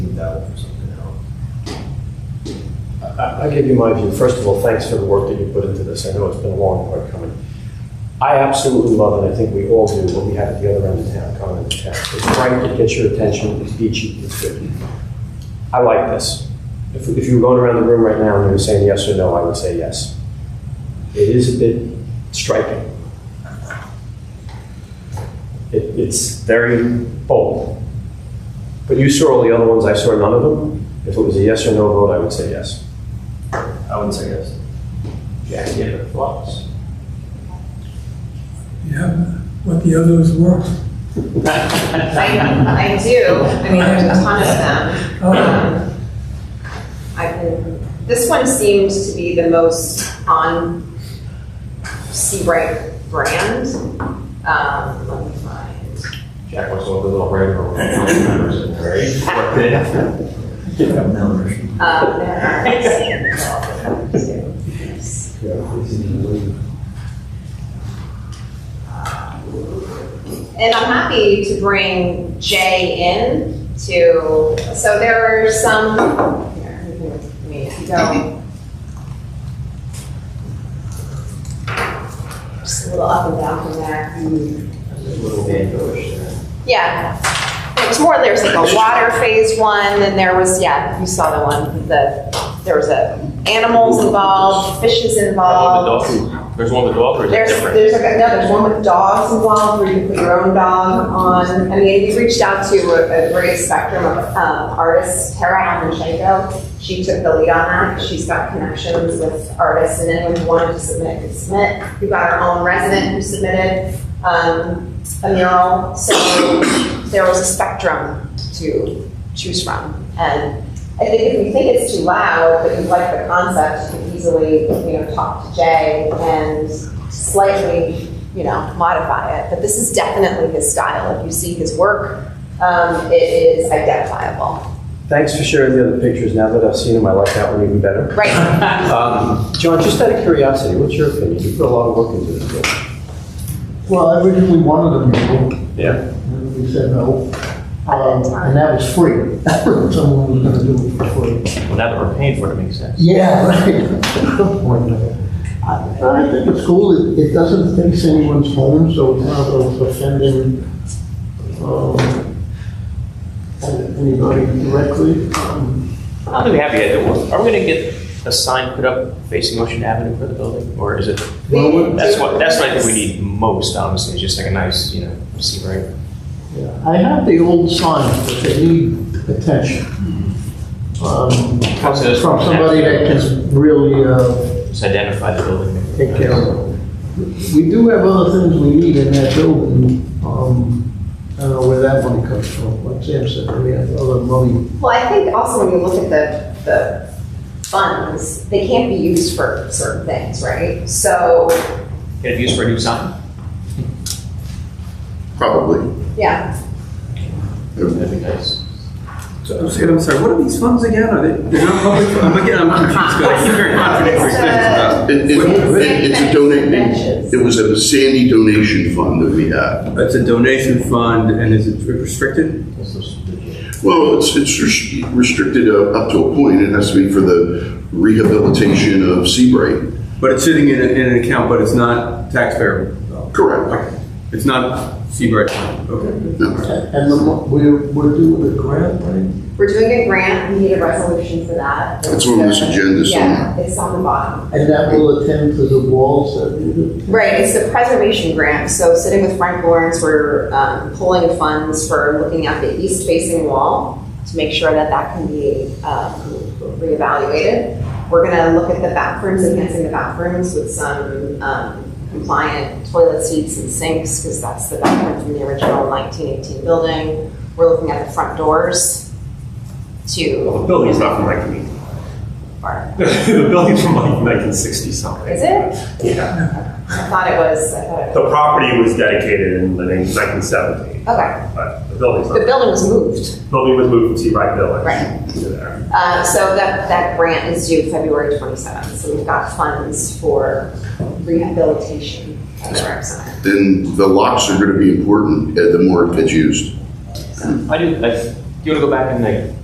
that'll do something out. I- I'll give you my view. First of all, thanks for the work that you put into this. I know it's been a long hard coming. I absolutely love, and I think we all do, what we have at the other end of town, common in town. It's frank, it gets your attention, it's beachy, it's good. I like this. If, if you were going around the room right now and you were saying yes or no, I would say yes. It is a bit striking. It, it's very bold. But you saw all the other ones, I saw none of them. If it was a yes or no vote, I would say yes. I wouldn't say yes. Yeah, yeah, it flops. Yeah, what the others were. I, I do, I mean, there's a ton of them. Um, I can, this one seemed to be the most on Seabright brand. Um, let me find. Jack wants to open a little brand for Numbers. Um, there are- Yes. And I'm happy to bring Jay in to, so there are some, here, you can- I mean, if you go. Just a little up and down from there. Little band doors, yeah. Yeah, it was more, there's like a water phase one, and there was, yeah, you saw the one, the, there was a animals involved, fishes involved. There's one with the dog, or is it There's, different? there's like, no, there's one with dogs involved, where you put your own dog on. I mean, we reached out to a, a great spectrum of, um, artists, Tara Almanchenko, she took the lead on that, she's got connections with artists, and anyone who wanted to submit could submit. We got our own resident who submitted, um, a mural, so there was a spectrum to choose from. And I think if we think it's too loud, but you like the concept, you can easily, you know, talk to Jay and slightly, you know, modify it. But this is definitely his style. If you see his work, um, it is identifiable. Thanks for sharing the other pictures. Now that I've seen them, I like that one even better. Right. Um, John, just out of curiosity, what's your opinion? You put a lot of work into this. book. Well, I originally wanted a mural, Yeah. and we said no. Um, And that was free. Someone was gonna do it for free. Well, now that we're paying for it, it makes sense. Yeah, right. I I think it's cool, it, it doesn't fix anyone's home, so it's not of offending, um, anybody directly. Um, I'm gonna be happy, I- are we gonna get a sign put up facing Ocean Avenue for the building, or is it, Well, what- that's what, that's what I think we need most, honestly, is just like a nice, you know, see, right? yeah. I have the old signs, but they need attention. Um, From From somebody that can really, uh, Just identify the building. take care of. it. We do have other things we need in that building. Um, I don't know where that money comes from, like Sam said, we have other money. Well, I think also when you look at the, the funds, they can't be used for certain things, right? So, Get it used for a new sign? Probably. yeah, It- That'd be nice. So, I'm sorry, I'm sorry, what are these funds again? Are they, they're not public? I'm again, I'm confused, because you're very uh, contradictory statements. it- it- It's a donate, it was a Sandy donation fund that we had. It's a donation fund, and is it restricted? This is- Well, it's, it's res- restricted uh, up to a point, it has to be for the rehabilitation of Seabright. But it's sitting in, a- in an account, but it's not taxpayer. Correct. Okay. It's not Seabright. Okay. No. And the, mo- we're, we're doing a grant, right? we're doing a grant, we need a resolution for that. It's on this agenda Yeah, it's on the bottom. And that will attend to the walls that we do. Right, it's the preservation grant. So sitting with Frank Lawrence, we're um, pulling funds for looking at the east facing wall to make sure that that can be um, reevaluated. We're gonna look at the bathrooms, enhancing the bathrooms with some um, compliant toilet seats and sinks, because that's the bathroom from the original 1918 building. We're looking at the front doors to, The building's not from 1980. or- The building's from like 1960 something. is it? Yeah. I thought it was, I thought it The property was dedicated in, I think, 1970, okay. but the building's The not. building was moved. The Building was moved from Seabright Village. Right. to there. Uh, So that, that grant is due February 27th, so we've got funds for rehabilitation of the rec center. Then the locks are gonna be important, uh, the more it gets used. I do, I, do you wanna go back and like